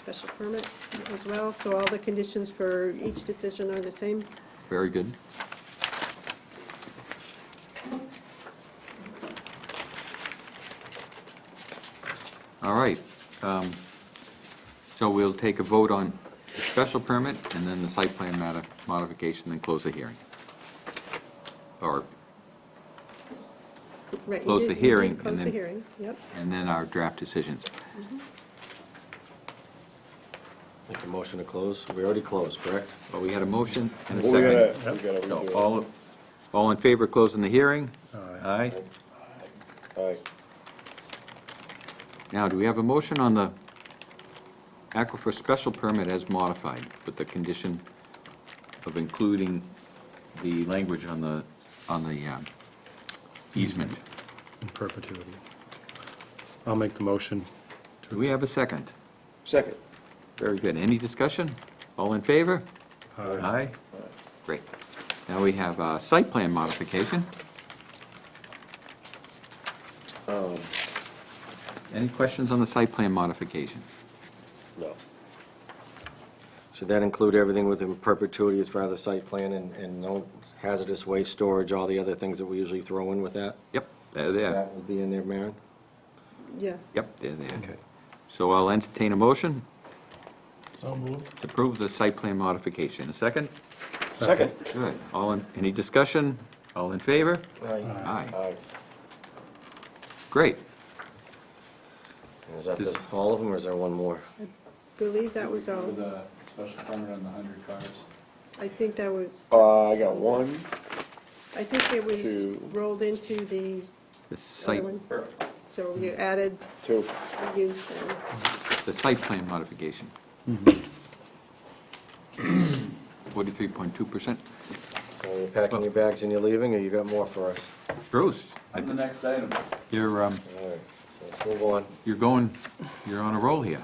special permit as well, so all the conditions for each decision are the same. Very good. All right. um, So we'll take a vote on the special permit and then the site plan modi- modification, then close the hearing. Or, Right, you Close did- the you did hearing and Close the then- hearing, yep. and then our draft decisions. Make a motion to close. We already closed, correct? Well, we had a motion and a Well, we gotta, second. we gotta So redo all, all in favor of closing the hearing? Aye. it. All right. Now, do we have a motion on the aquifer special permit as modified with the condition of including the language on the, on the um, easement? in perpetuity. I'll make the motion. Do we have a second? Second. Very good. Any discussion? All in favor? Uh, Aye. Great. Now we have a site plan modification. Any questions on the site plan modification? No. Should that include everything within perpetuity as far as the site plan and, and no hazardous waste storage, all the other things that we usually throw in with that? Yep, they're there. That will be in there, Maren? Yeah, Yep, they're there. Okay. So I'll entertain a motion So moved. to approve the site plan modification. A second? Second. Good. All in, any discussion? All in favor? Aye. Aye. Aye. Great. Is that the- all of them, or is there one more? believe that was all. For the special permit on the hundred cars. I think that was, Uh, I got one, I think it was Two. rolled into the The other site, one. So you added two. use and, the site plan modification. Forty-three point two percent. Are you packing your bags and you're leaving, or you got more for us? Bruce, On the next item. you're, um, All right, let's move on. you're going, you're on a roll here.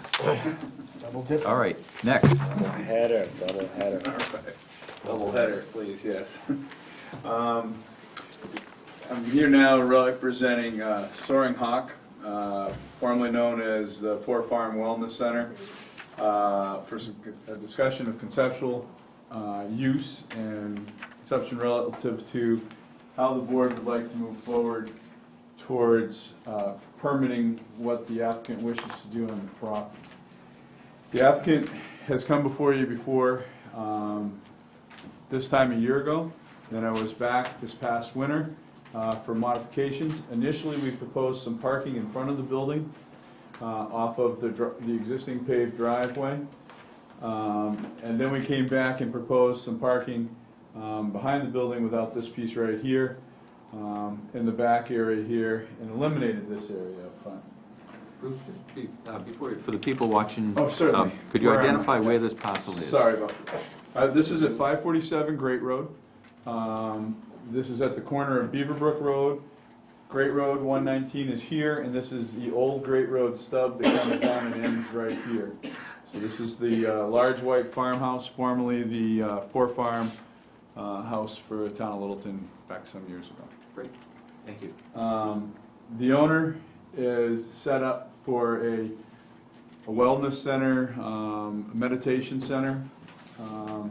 All right, next. Header, double header. Double header. Please, yes. Um, I'm here now representing uh, Soaring Hawk, uh, formerly known as the Poor Farm Wellness Center, uh, for some, a discussion of conceptual uh, use and conception relative to how the board would like to move forward towards uh, permitting what the applicant wishes to do on the property. The applicant has come before you before, um, this time a year ago. Then I was back this past winter uh, for modifications. Initially, we proposed some parking in front of the building uh, off of the dr- the existing paved driveway. Um, And then we came back and proposed some parking um, behind the building without this piece right here, um, in the back area here, and eliminated this area up front. Bruce, just be- uh, before you- for the people watching. Oh, certainly. um, Could you Where am I? identify where this parcel is? Sorry about that. Uh, This is at 547 Great Road. Um, This is at the corner of Beaverbrook Road. Great Road 119 is here, and this is the old Great Road stub that comes down and ends right here. So this is the uh, large white farmhouse, formerly the uh, Poor Farm uh, House for the Town of Littleton back some years ago. Great, Thank you. Um, The owner is set up for a a wellness center, um, meditation center um,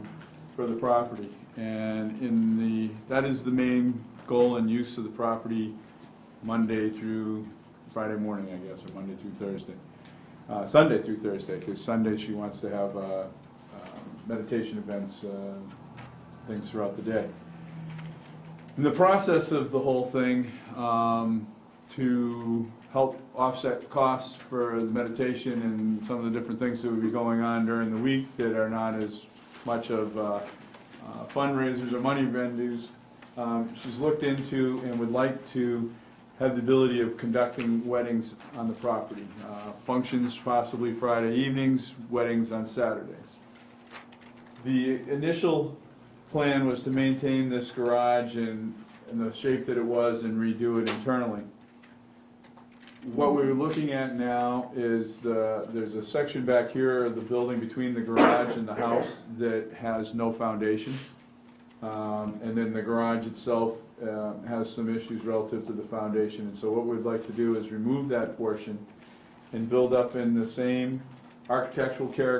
for the property. And in the, that is the main goal and use of the property Monday through Friday morning, I guess, or Monday through Thursday. Uh, Sunday through Thursday, because Sunday she wants to have uh, uh, meditation events, uh, things throughout the day. In the process of the whole thing, um, to help offset costs for the meditation and some of the different things that would be going on during the week that are not as much of uh, uh, fundraisers or money vendors, um, she's looked into and would like to have the ability of conducting weddings on the property. Uh, Functions possibly Friday evenings, weddings on Saturdays. The initial plan was to maintain this garage in, in the shape that it was and redo it internally. What we're looking at now is the, there's a section back here of the building between the garage and the house that has no foundation. Um, and then the garage itself, uh, has some issues relative to the foundation. And so what we'd like to do is remove that portion and build up in the same architectural character